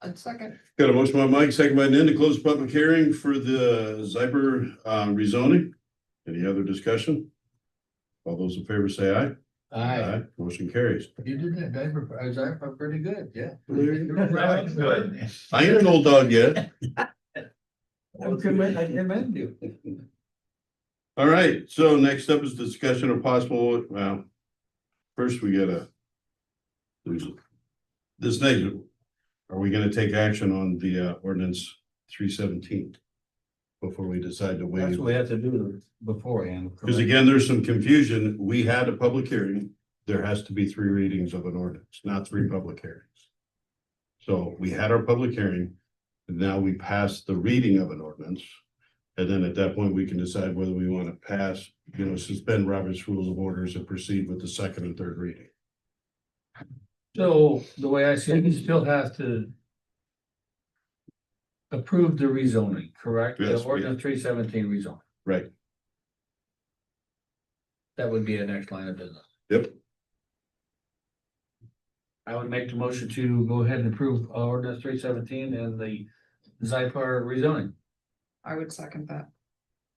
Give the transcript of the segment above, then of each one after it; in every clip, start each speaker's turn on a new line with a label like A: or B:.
A: I'd second.
B: Got a motion by Mike, second by Nan to close the public hearing for the Zyber uh rezoning. Any other discussion? All those in favor say aye. Motion carries.
A: You did that, diaper, I was diaper pretty good, yeah.
C: Good.
B: I ain't an old dog yet.
A: I commend, I commend you.
B: All right, so next up is discussion of possible, well. First, we gotta. there's- This next, are we gonna take action on the uh ordinance three seventeen? Before we decide to waive?
A: That's what we have to do beforehand.
B: Because again, there's some confusion. We had a public hearing. There has to be three readings of an ordinance, not three public hearings. So we had our public hearing. Now we pass the reading of an ordinance. And then at that point, we can decide whether we want to pass, you know, suspend Robert's rules of orders and proceed with the second and third reading.
C: So the way I see it, you still have to. Approve the rezoning, correct? The
B: Yes, we-
C: Ordinance three seventeen rezoning.
B: Right.
C: That would be a next line of business.
B: Yep.
C: I would make the motion to go ahead and approve uh, ordinance three seventeen and the Zypar rezoning.
D: I would second that.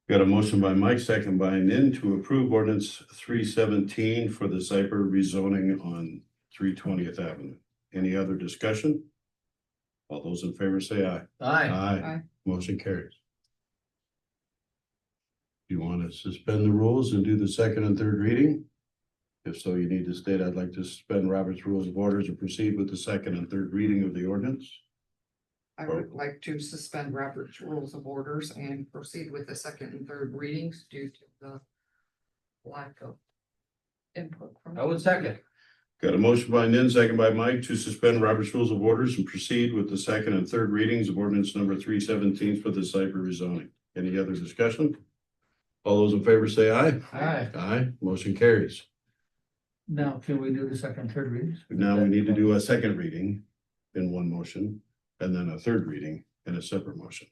B: Got a motion by Mike, second by Nin to approve ordinance three seventeen for the Cyper rezoning on three twentieth Avenue. Any other discussion? All those in favor say aye.
C: Aye.
B: Aye.
D: Aye.
B: Motion carries. You want to suspend the rules and do the second and third reading? If so, you need to state, I'd like to suspend Robert's Rules of Orders and proceed with the second and third reading of the ordinance.
D: I would like to suspend Robert's rules of orders and proceed with the second and third readings due to the lack of input from.
C: I would second.
B: Got a motion by Nin, second by Mike to suspend Robert's Rules of Orders and proceed with the second and third readings of ordinance number three seventeen for the Cyber rezoning. Any other discussion? All those in favor say aye.
C: Aye.
B: Aye, motion carries.
C: Now, can we do the second, third readings?
B: Now we need to do a second reading in one motion and then a third reading in a separate motion.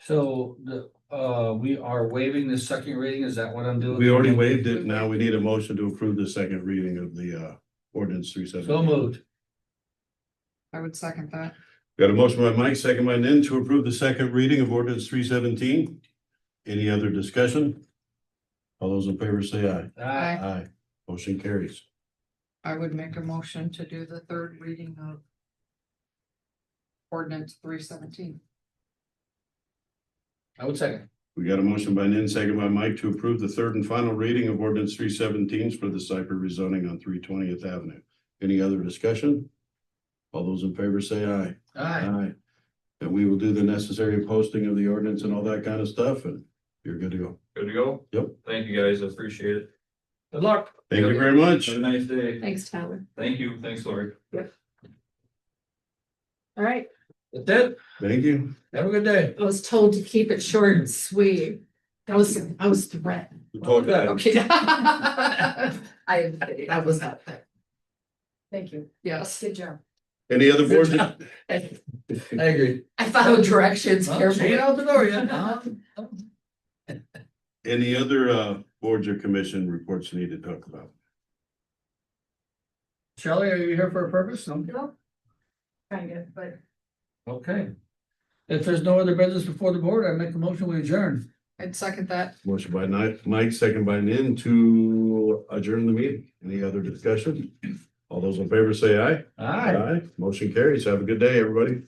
C: So the, uh, we are waiving the second reading, is that what I'm doing?
B: We already waived it. Now we need a motion to approve the second reading of the uh ordinance three
C: So
B: seventeen.
C: moved.
D: I would second that.
B: Got a motion by Mike, second by Nan to approve the second reading of ordinance three seventeen. Any other discussion? All those in favor say aye.
C: Aye.
B: Aye. Motion carries.
D: I would make a motion to do the third reading of ordinance three seventeen.
C: I would second.
B: We got a motion by Nan, second by Mike to approve the third and final reading of ordinance three seventeen for the Cyper rezoning on three twentieth Avenue. Any other discussion? All those in favor say aye.
C: Aye.
B: And we will do the necessary posting of the ordinance and all that kind of stuff, and you're good to go.
E: Good to go?
B: Yep.
E: Thank you guys, I appreciate it.
C: Good luck.
B: Thank you very much.
E: Have a nice day.
F: Thanks, Tyler.
E: Thank you, thanks, Lori.
F: All right,
C: That's it.
B: Thank you.
C: Have a good day.
F: I was told to keep it short and sweet. I was, I was threatened.
C: Oh.
F: Okay. I, I was out there. Thank you.
D: Yes.
F: Good job.
B: Any other board?
F: I
C: I agree.
F: followed directions
C: Well, she
F: carefully.
C: ain't out the door yet,
D: Uh-huh.
C: huh?
B: Any other uh boards or commission reports you need to talk about?
C: Shelley, are you here for a purpose? No?
F: Kind of, but.
C: Okay. If there's no other business before the board, I make a motion, we adjourn.
D: I'd second that.
B: Motion by Ni- Mike, second by Nin to adjourn the meeting. Any other discussion? All those in favor say aye.
C: Aye.
B: Motion carries. Have a good day, everybody.